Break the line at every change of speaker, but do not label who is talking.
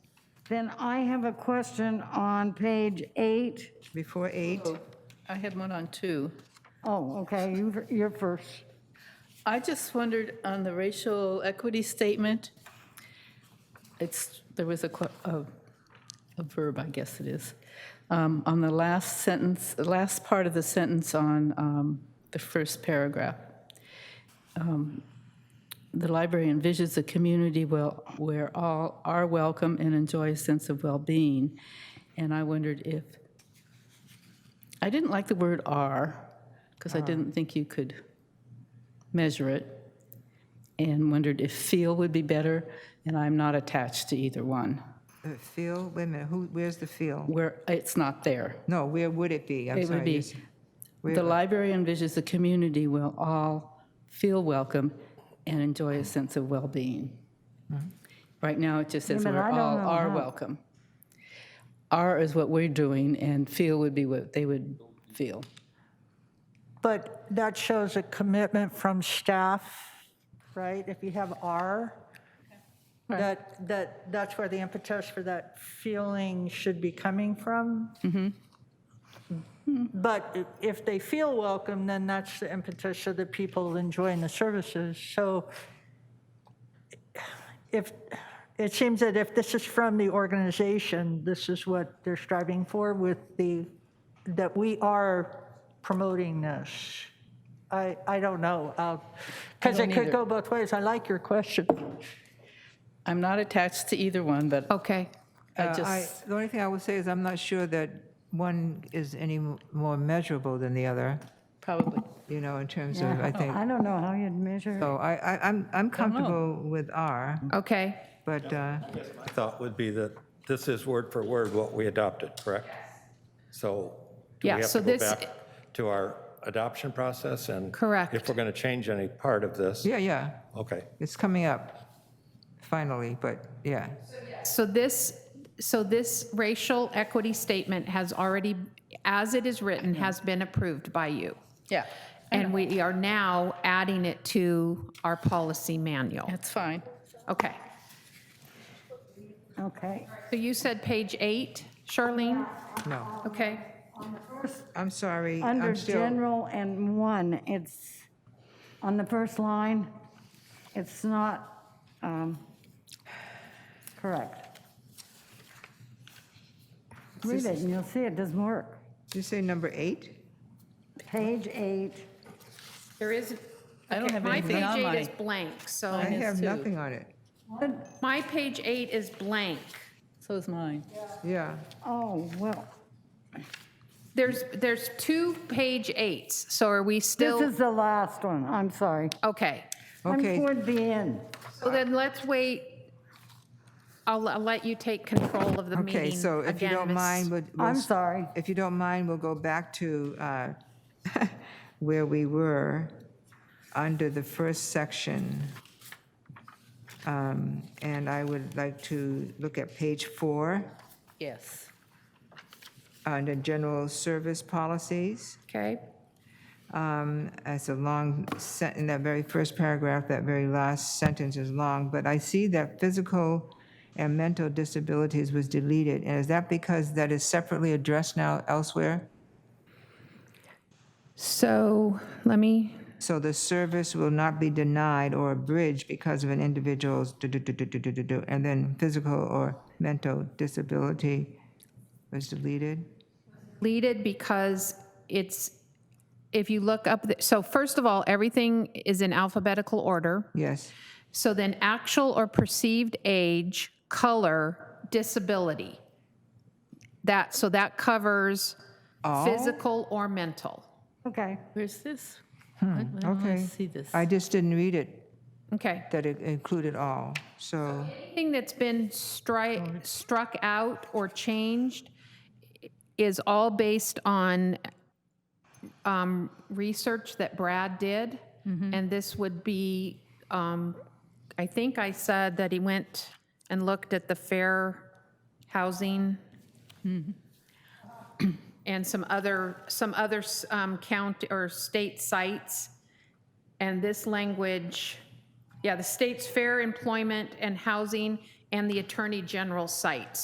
Then I have a question on page eight.
Before eight?
Oh. I had one on two.
Oh, okay, you- you're first.
I just wondered on the racial equity statement, it's, there was a, qu- a a verb, I guess it is, um, on the last sentence, the last part of the sentence on um, the first paragraph. Um, The library envisions a community where, where all are welcome and enjoy a sense of well-being. And I wondered if, I didn't like the word "are" because I didn't think you could measure it, and wondered if "feel" would be better, and I'm not attached to either one
The feel, wait a minute, who, where's the feel?
where it's not there.
No, where would it be? I'm
It would
sorry.
be,
yes.
the library envisions a community where all feel welcome and enjoy a sense of well-being. Right now, it just says
Wait a minute,
where
I don't
all
know
are
how.
welcome. Are is what we're doing, and feel would be what they would feel.
But that shows a commitment from staff, right? If you have R, that, that, that's where the impetus for that feeling should be coming from. But i- if they feel welcome, then that's the impetus of the people enjoying the services. So if, it seems that if this is from the organization, this is what they're striving for with the, that we are promoting this. I, I don't know, because it could go both ways. I like your question.
I'm not attached to either one, but
Oh,
Okay.
I
Uh, I-
just,
The only thing I would say is I'm not sure that one is any m- more measurable than the other,
probably,
you know, in terms of, I think.
I don't know how you'd measure. it.
So I, I, I'm, I'm comfortable with R,
Okay.
but, uh,
My thought would be that this is word for word what we adopted, correct? So do we
Yeah,
have
so
to go
this-
back to our adoption process and?
Correct.
If we're going to change any part of this?
yeah, yeah,
Okay.
it's coming up finally, but yeah.
So this, so this racial equity statement has already, as it is written, has been approved by you.
yeah,
And we are now adding it to our policy manual.
that's fine.
Okay.
Okay.
So you said page eight, Charlene?
No,
Okay.
I'm sorry. I'm
Under
still-
general and one, it's, on the first line, it's not um, correct. Read it and you'll see it doesn't work.
Did you say number eight?
Page eight,
There is.
I don't
okay,
have anything on
My page
my,
eight is blank,
I
so
Mine is
have
two.
nothing on it.
my page eight is blank.
so is mine.
Yeah,
oh, well,
There's, there's two page eights, so are we
this
still,
is the last one, I'm sorry.
okay.
I'm
Okay.
toward the end.
So then let's wait, I'll, I'll let you take control of the meeting
okay, so if you
again,
don't
Miss-
mind, we'll. we'll
I'm
s-
sorry.
If you don't mind, we'll go back to uh, where we were under the first section. Um, And I would like to look at page four,
Yes,
under general service policies.
Okay,
Um, That's a long, sen- in that very first paragraph, that very last sentence is long, but I see that physical and mental disabilities was deleted. And is that because that is separately addressed now elsewhere?
so let me,
So the service will not be denied or abridged because of an individual's du-du-du-du-du-du-du, and then physical or mental disability was deleted?
deleted because it's, if you look up, the- so first of all, everything is in alphabetical order.
Yes,
So then actual or perceived age, color, disability. That, so that covers physical or mental.
Okay,
where's this? I I don't
okay.
wanna see this.
I just didn't read it,
Okay.
that it included all, so,
Anything that's been stri struck out or changed is all based on um, research that Brad did. And this would be, um, I think I said that he went and looked at the fair housing and some other, some other s- um, county or state sites. And this language, yeah, the state's fair employment and housing and the attorney general sites.